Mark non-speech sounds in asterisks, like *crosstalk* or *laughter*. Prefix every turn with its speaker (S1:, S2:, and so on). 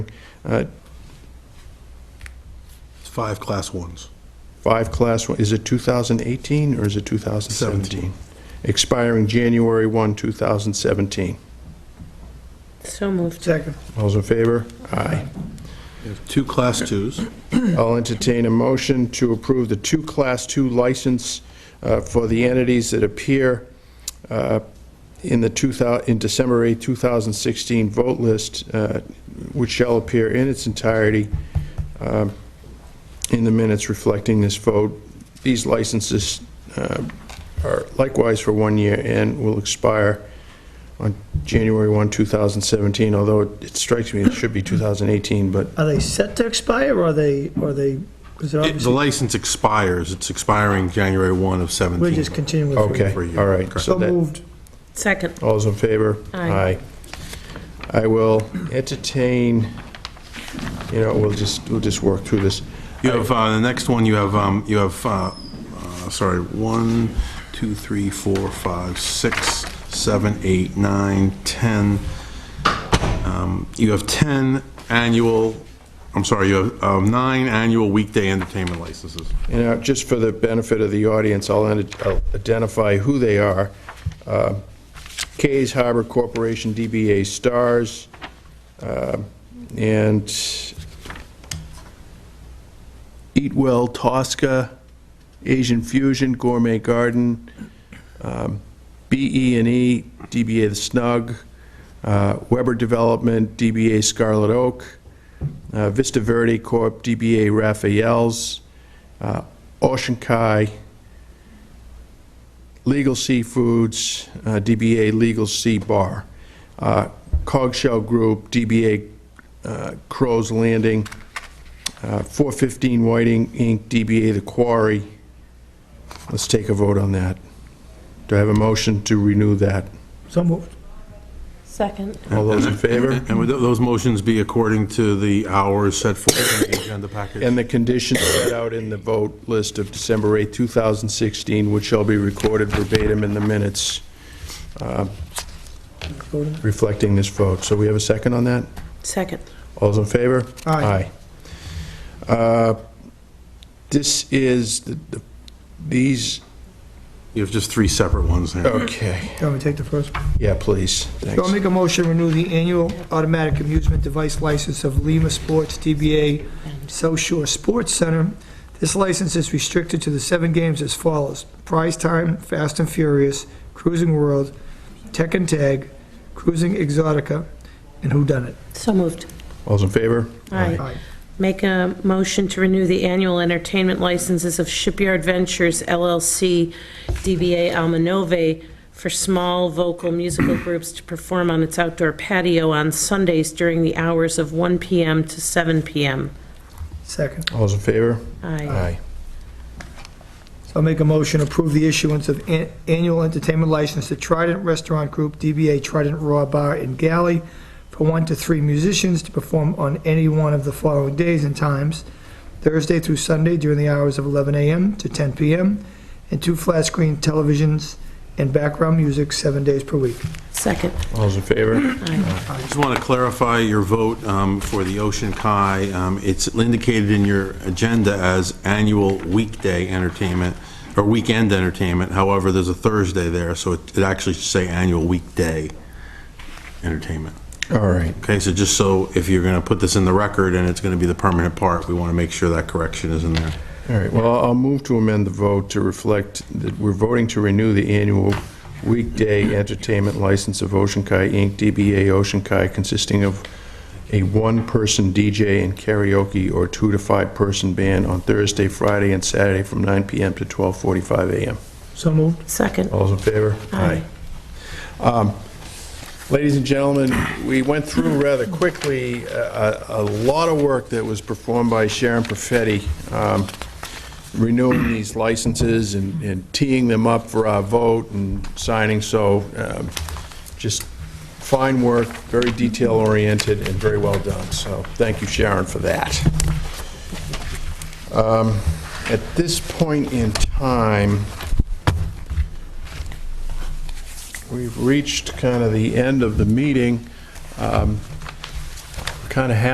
S1: uh,
S2: It's five class ones.
S1: five class, one- is it 2018 or is it 2017?
S2: Seventeen.
S1: Expiring January 1, 2017.
S3: So moved.
S4: Second.
S1: All's in favor? Aye.
S2: You have two class twos.
S1: I'll entertain a motion to approve the two Class II license uh, for the entities that appear uh, in the 2000, in December 8, 2016 vote list, uh, which shall appear in its entirety um, in the minutes reflecting this vote. These licenses uh, are likewise for one year and will expire on January 1, 2017, although it it strikes me it should be 2018, but
S4: Are they set to expire, or are they, or are they, because they're
S2: It- The
S4: obviously,
S2: license expires, it's expiring January 1 of 17.
S4: we're just continuing with three.
S1: Okay,
S2: For you,
S1: all right.
S2: correct.
S1: So
S4: So
S1: that,
S4: moved.
S3: Second.
S1: all's in favor? Aye.
S3: Aye.
S1: I will entertain, you know, we'll just, we'll just work through this.
S2: You have, uh, the next one, you have, um, you have, uh, uh, sorry, one, two, three, four, five, six, seven, eight, nine, ten. Um, You have 10 annual, I'm sorry, you have um, nine annual weekday entertainment licenses.
S1: And now, just for the benefit of the audience, I'll ident- I'll identify who they are. Uh, Kay's Harbor Corporation, DBA Stars, uh, and Eat Well Tosca, Asian Fusion Gourmet Garden, be and E DBA The Snug, uh, Weber Development, DBA Scarlet Oak, uh, Vista Verde Corp., DBA Raphael's, uh, Ocean Kai, Legal Seafoods, uh, DBA Legal Sea Bar, uh, Cogshell Group, DBA uh, Crow's Landing, uh, 415 Whiting Inc., DBA The Quarry. Let's take a vote on that. Do I have a motion to renew that?
S4: So moved.
S3: Second.
S1: All those
S2: *laughs*
S1: in favor?
S2: And would tho- those motions be according to the hours set forth in the agenda package?
S1: And the conditions set out in the vote list of December 8, 2016, which shall be recorded verbatim in the minutes
S4: Go to-
S1: reflecting this vote. So we have a second on that?
S3: Second.
S1: All's in favor?
S4: Aye.
S1: Aye. Uh, This is, the the- these,
S2: You have just three separate ones there.
S1: okay,
S4: Do you want me to take the first? one?
S1: yeah, please,
S4: So I'll
S1: thanks.
S4: make a motion to renew the annual automatic amusement device license of Lima Sports DBA South Shore Sports Center. This license is restricted to the seven games as follows: Prize Time, Fast and Furious, Cruising World, Tekken Tag, Cruising Exotica, and Who Done It.
S3: So moved.
S1: All's in favor?
S3: Aye. Make a motion to renew the annual entertainment licenses of Shipyard Ventures LLC, DBA Almanove, for small vocal musical groups to perform on its outdoor patio on Sundays during the hours of 1 PM to 7 PM.
S4: Second.
S1: All's in favor?
S3: Aye.
S4: So I'll make a motion to approve the issuance of an- annual entertainment license to Trident Restaurant Group, DBA Trident Raw Bar and Galley, for one to three musicians to perform on any one of the following days and times, Thursday through Sunday during the hours of 11 a.m. to 10 p.m., and two flat-screen televisions and background music seven days per week.
S3: Second.
S1: All's in favor?
S2: I just want to clarify your vote um, for the Ocean Kai. Um, It's indicated in your agenda as annual weekday entertainment, or weekend entertainment. However, there's a Thursday there, so it it actually should say annual weekday entertainment.
S1: All right.
S2: Okay, so just so, if you're going to put this in the record and it's going to be the permanent part, we want to make sure that correction is in there.
S1: All right, well, I'll move to amend the vote to reflect that we're voting to renew the annual weekday entertainment license of Ocean Kai Inc., DBA Ocean Kai, consisting of a one-person DJ and karaoke or two to five-person band on Thursday, Friday, and Saturday from 9 PM to 12:45 AM.
S4: So moved.
S3: Second.
S1: All's in favor?
S3: Aye.
S1: Um, Ladies and gentlemen, we went through rather quickly a a- a lot of work that was performed by Sharon Perfetti, um, renewing these licenses and and teeing them up for our vote and signing, so um, just fine work, very detail-oriented and very well done, so thank you, Sharon, for that. Um, At this point in time, Um, We've reached kind of the end of the meeting. Kind of happy